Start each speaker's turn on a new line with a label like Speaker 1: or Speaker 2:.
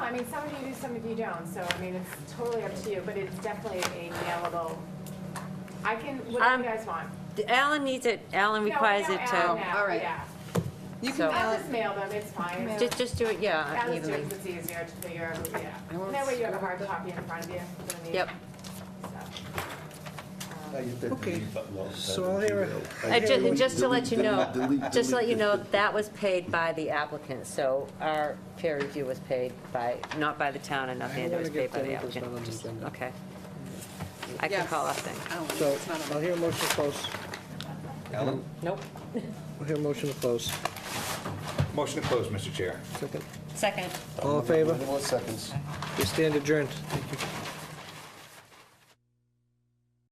Speaker 1: I mean, some of you do, some of you don't, so I mean, it's totally up to you, but it's definitely a mailable. I can, what do
Speaker 2: Um,
Speaker 1: you guys want?
Speaker 2: Alan needs it, Alan
Speaker 1: No,
Speaker 2: requires
Speaker 1: no,
Speaker 2: it
Speaker 1: Alan,
Speaker 2: to,
Speaker 1: no,
Speaker 3: All right.
Speaker 1: yeah.
Speaker 3: You
Speaker 2: So-
Speaker 3: can mail
Speaker 1: I'll
Speaker 3: it.
Speaker 1: just mail them, it's fine.
Speaker 3: Mail.
Speaker 2: just, just do it, yeah,
Speaker 1: Alice
Speaker 2: evenly.
Speaker 1: Jones, it's easier to figure out, who- yeah.
Speaker 3: I won't
Speaker 1: That way you have a
Speaker 3: screw
Speaker 1: hard
Speaker 3: up the-
Speaker 1: copy in front of you for the meeting.
Speaker 2: Yep.
Speaker 1: So, um,
Speaker 4: Okay, so I'll hear a-
Speaker 2: Uh, ju-
Speaker 4: Delete-
Speaker 2: Just to let you know,
Speaker 4: delete,
Speaker 2: just to let you know,
Speaker 4: delete.
Speaker 2: that was paid by the applicant, so our peer review was paid by, not by the town in Northampton, it
Speaker 4: wanna
Speaker 2: was paid
Speaker 4: get
Speaker 2: by the
Speaker 4: Demetrius on
Speaker 2: applicant.
Speaker 4: the
Speaker 2: Just-
Speaker 4: agenda.
Speaker 2: Okay. I can
Speaker 3: Yes.
Speaker 2: call off then.
Speaker 3: I don't know,
Speaker 4: So
Speaker 3: it's not on
Speaker 4: I'll
Speaker 3: my.
Speaker 4: hear a motion to close.
Speaker 5: Alan?
Speaker 2: Nope.
Speaker 4: I'll hear a motion to close.
Speaker 5: Motion to close, Mr. Chair.
Speaker 4: Second.
Speaker 2: Second.
Speaker 4: All in favor?
Speaker 6: Twenty more seconds.
Speaker 4: We stand adjourned. Thank you.